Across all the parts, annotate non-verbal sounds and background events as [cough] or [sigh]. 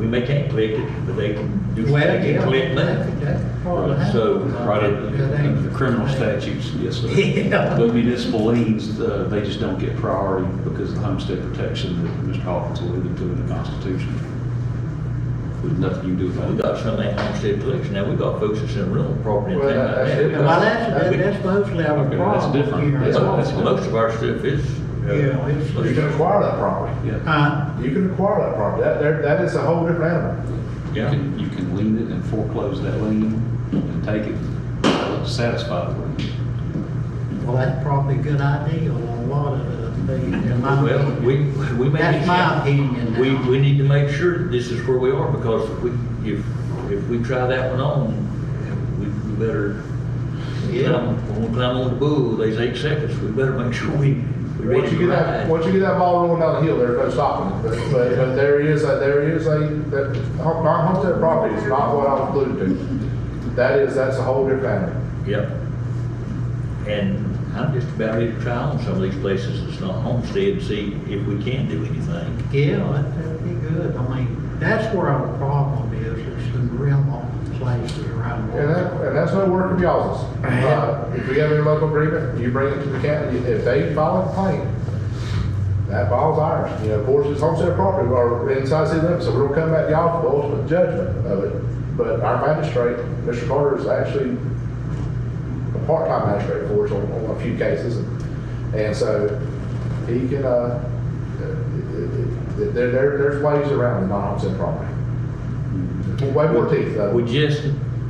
and they can't collect it, but they can do, Well, they can yeah. collect that. That's part of Right, that. So, right, That ain't- in criminal statutes, yes, [laughs] sir. Yeah. But municipal liens, uh, they just don't get priority because of the homestead protection that Mr. Hawkins alluded to in the Constitution. There's nothing you can do about it. We got some of that homestead collection, now we got folks that's in rental property and Well, things like that's that. it. Well, that's, that's mostly our Okay, that's problem. different. here. That's- that's different. Most of our stuff is, Yeah, You it's, uh, can acquire that property. Yeah, huh? You can acquire that property. That, there- that is a whole different animal. you can, you can lien it and foreclose that lien and take it, satisfy the lien. Well, that's probably a good idea on a lot of the things in my. well, we, we may. That's my opinion now. We, we need to make sure that this is where we are, because if we, if, if we try that one on, we we better, Yeah. yeah, when we climb on the bull, they say eight seconds, we better make sure we, we ready Once you to get that, ride. once you get that ball rolling down the hill, there's no stopping it. But, but, but there is, a- there is a, that, non-homestead property is not what I was alluding to. That is, that's a whole different animal. Yep. And I'm just about ready to try on some of these places that's not homestead, and see if we can do anything. Yeah, that- that'd be good. I mean, that's where our problem is, is the rental places around. And that, and that's no work of y'all's. Uh, If we have any local agreement, you bring it to the county, if they file a complaint, that file's ours. You know, of course, it's homestead property, or inside city limits, so we'll come back to y'all for the ultimate judgment of it. But our magistrate, Mr. Carter, is actually a part-time magistrate for us on, on a few cases. And so he can, uh, uh, there, there, there's ways around the non-homestead property. Way more teeth, though. Uh, We just,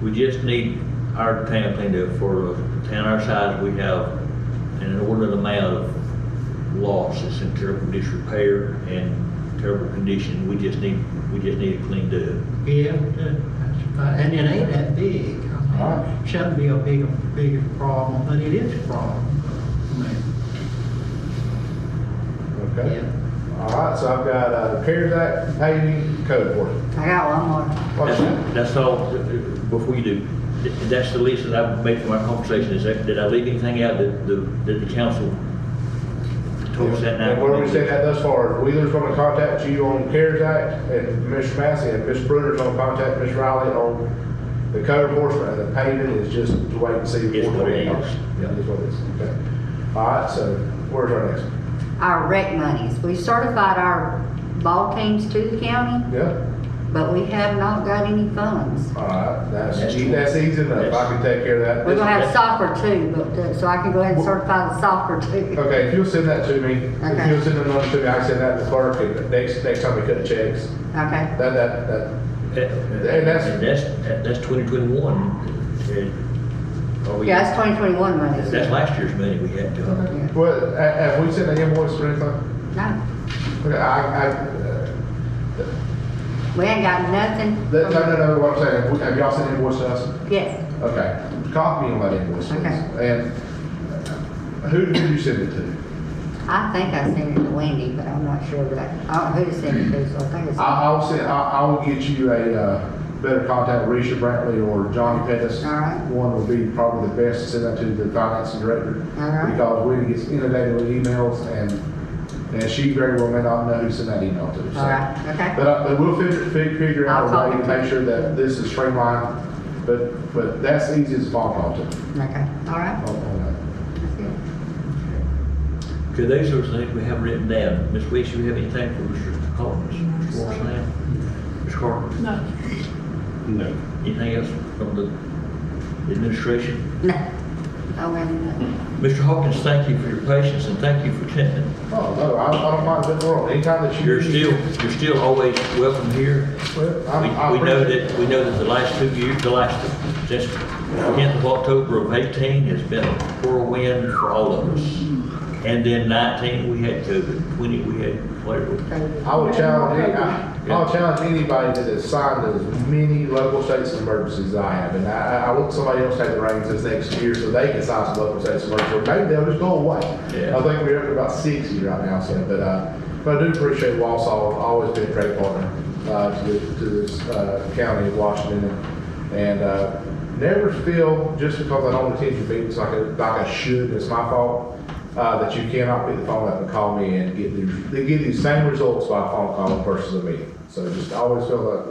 we just need our town cleaned up for a town our size, we have an inordinate amount of loss, it's in terrible disrepair and terrible condition, we just need, we just need it cleaned up. Yeah, that- that's fine. uh, and it ain't that big. I mean, All right. Shouldn't be a big, big problem, but it is a problem. I mean, Okay. All right, so I've got uh, CARES Act paving code for it. I got one more. What's that? That's- That's all, before you do, that's the list that I made from our conversation, is that, did I leave anything out that, the- that the council told us that night? And where we said that thus far, Wheeler's gonna contact you on CARES Act, and Ms. Massey and Ms. Bruder's gonna contact Ms. Riley on the code enforcement, and the paving is just to wait and see. It's what it is. Yeah, it's what it is, okay. All right, so where's our next? one? Our rec monies, we certified our ball teams to the county, Yeah, but we have not got any funds. all right, that's, That's e- that's easy enough, I can take care of that. We're gonna have Yes. soccer too, but, uh, so I can go ahead and certify the soccer too. Okay, if you'll send that to me, if Okay. you'll send the number to me, I can send that to the clerk, and next, next time we cut checks, Okay, that, that, that, Uh, And that's- that's, that's twenty twenty-one. yeah, that's twenty twenty-one money. That's last year's money we had to, Yeah. Well, ha- have we sent an invoice or anything? No, Okay, I, I, uh, we ain't got nothing. Um, that- no, no, no, what I'm saying, have we- have y'all sent an invoice to us? Yes, Okay, copy and let invoice. please. Okay. And uh, who did you send it to? I think I sent it to Wendy, but I'm not sure, but I, I don't know who to send it to, so I think it's. I, I'll send, I, I will get you a, uh, better contact, Risha Brantley or Johnny Pettis. All right. One would be probably the best to send that to the finance director. All right. Because we get inundated with emails and, and she very well may not know who sent that email to. so. All right, okay. But, uh, but we'll figure, fig- figure out I'll a way talk to to make sure that this is streamlined, but, but that's easy as a phone call to. Oh, Okay, all right. on- on That's good. okay, those are the things we have written down. Ms. Weeks, you have anything for Mr. Collins, Mr. Morrison? Ms. Carter, No. No. anything else from the administration? No, I wouldn't. Mr. Hawkins, thank you for your patience and thank you for attending. that. Oh, no, I, I don't mind a bit more, anytime that you. You're still, you're still always welcome here. Well, We, I'm- I we know appreciate- that, we know that the last two years, the last, since the tenth of October of eighteen has been a whirlwind for all of us. And then nineteen, we had COVID, twenty, we had whatever. I would challenge, any- I, I'll challenge anybody that has signed as many local states of emergencies as I have, and I, I- I want somebody else to take the reins this next year so they can sign some local states of emergency, or maybe they'll just go away. Yeah. I think we're up to about sixty right now, so, but, uh, but I do appreciate Wausau, always been a great partner, uh, to, the- to this, uh, county of Washington, and, and, uh, never feel, just because I don't attend your meetings like I, like I should, it's my fault, uh, that you cannot pick the phone up and call me and get the, they get these same results by a phone call versus a meeting. So just always feel that